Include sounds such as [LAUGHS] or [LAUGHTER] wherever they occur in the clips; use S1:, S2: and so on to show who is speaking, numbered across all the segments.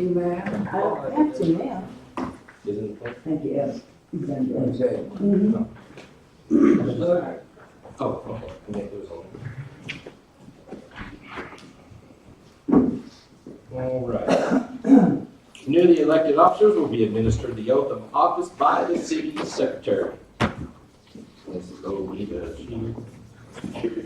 S1: You, ma'am?
S2: I don't have to now.
S3: Isn't it?
S2: Thank you, Evan. You've done good.
S1: Okay.
S2: Mhm.
S1: Look,
S3: Oh, okay. Yeah, it was on. All right. [CLEARS THROAT] Newly elected officers will be administered the oath of office by the city secretary. Let's go with the chief.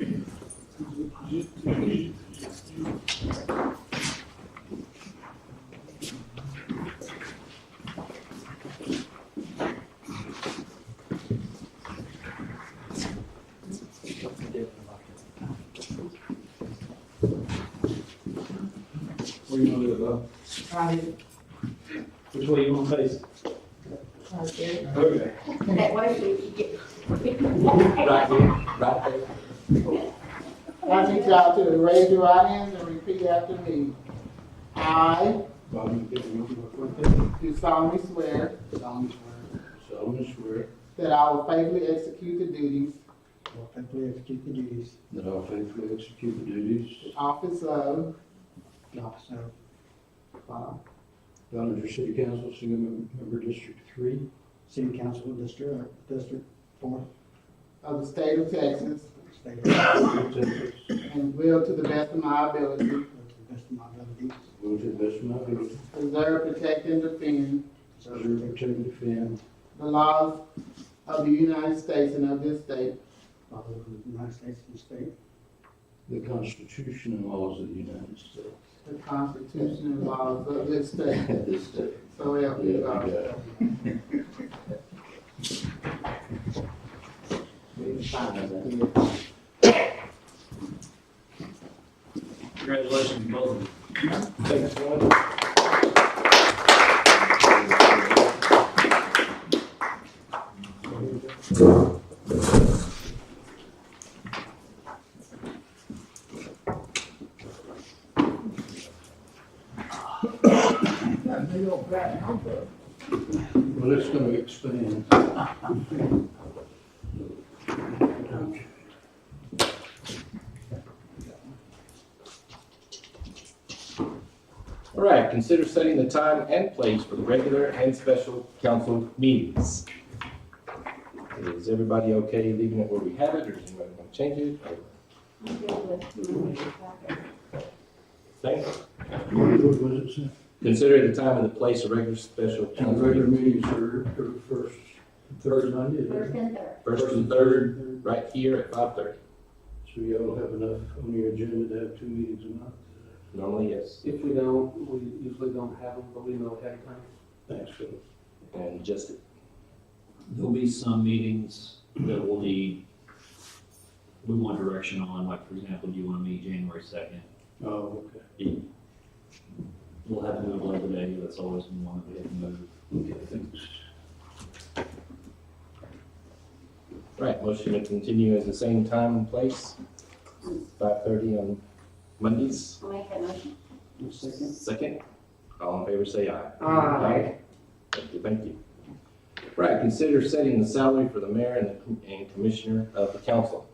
S4: Where you gonna do it, Bob?
S2: Right,
S4: Which way you wanna face?
S2: right there.
S4: Okay.
S2: That way we can get.
S3: Right there, right there.
S5: I need y'all to raise your right hands and repeat after me. I
S4: Bob, you can do it real quick.
S5: do solemnly swear
S4: Solemnly swear. solemnly swear.
S5: that I will faithfully execute the duties,
S4: I'll faithfully execute the duties. That I'll faithfully execute the
S5: of
S4: duties.
S5: the office of,
S4: The office of
S5: uh,
S4: Donovan City Council, single member District Three. City Council District, District Four.
S5: of the state of Texas
S4: State of Texas.
S5: and will to the best of my ability
S4: To the best of my ability. Will to the best of my ability.
S5: preserve, protect, and defend
S4: Preserve, protect, and defend.
S5: the laws of the United States and of this state,
S4: Laws of the United States and state. The Constitution and laws of the United States.
S5: the Constitution and laws of this state,
S4: This state.
S5: so help me God.
S6: Congratulations, both of you.
S4: Thanks, Rod.
S1: that big old fat number.
S4: Well, it's gonna expand.
S3: All right, consider setting the time and place for the regular and special council meetings. Is everybody okay leaving it where we have it, or does anybody want to change it? or- Thank you.
S4: What was it, sir?
S3: Consider the time and the place of regular special
S4: And
S3: council
S4: regular
S3: meeting,
S4: meetings are every first, third Monday.
S2: First and
S4: isn't it?
S2: third.
S3: first and third, right here at five thirty.
S4: So y'all have enough on your agenda to have two meetings a month?
S3: Normally, yes.
S7: If we don't, we usually don't have them, but we know ahead of time.
S4: Thanks, Phil.
S3: And just,
S6: There'll be some meetings that will need, we want direction on, like, for example, do you want to meet January second?
S4: Oh, okay.
S6: We'll have to move Labor Day, that's always been one that we have to move.
S4: Okay, thanks.
S3: right, motion to continue at the same time and place, five thirty on Mondays.
S2: I'll make that motion.
S3: Second, all in favor, say aye.
S5: Aye.
S3: Thank you, thank you. Right, consider setting the salary for the mayor and the com- and commissioner of the council.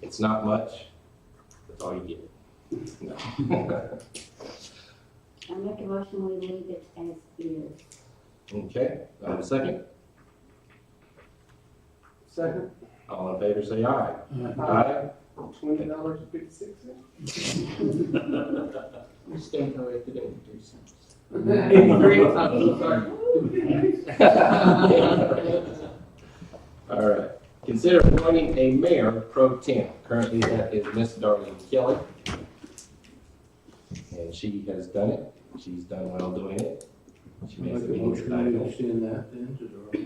S3: It's not much, that's all you get. No.
S2: I make a motion, we leave it as is.
S3: Okay, I have a second.
S7: Second,
S3: All in favor, say aye.
S4: Aye.
S3: Aye.
S7: twenty dollars and fifty-six cents.
S1: [LAUGHS] We stand corrected at two cents.
S3: [LAUGHS] All right. Consider appointing a mayor pro temp. Currently, that is Miss Darlene Kelly. And she has done it. She's done well doing it. She
S4: Make
S3: makes
S4: a
S3: the meeting
S4: motion to
S3: tonight.
S4: extend that then to the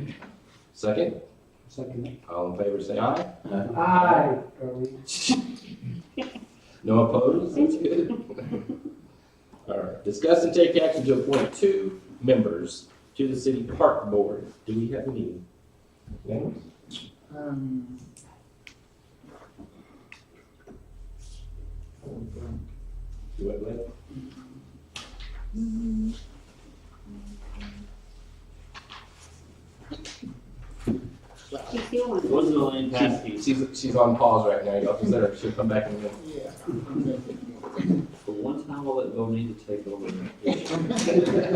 S3: Second,
S4: second.
S3: all in favor, say aye.
S7: Aye.
S3: No opposed? That's good. All right. Discuss and take action to appoint two members to the city park board. Do we have any names?
S5: Um,
S3: Do I let?
S2: She still wants. it.
S6: Wasn't Elaine Paskey?
S3: She's, she's on pause right now, y'all, just let her, she'll come back in a minute.
S5: yeah.
S6: For one I'll let Bonita take over.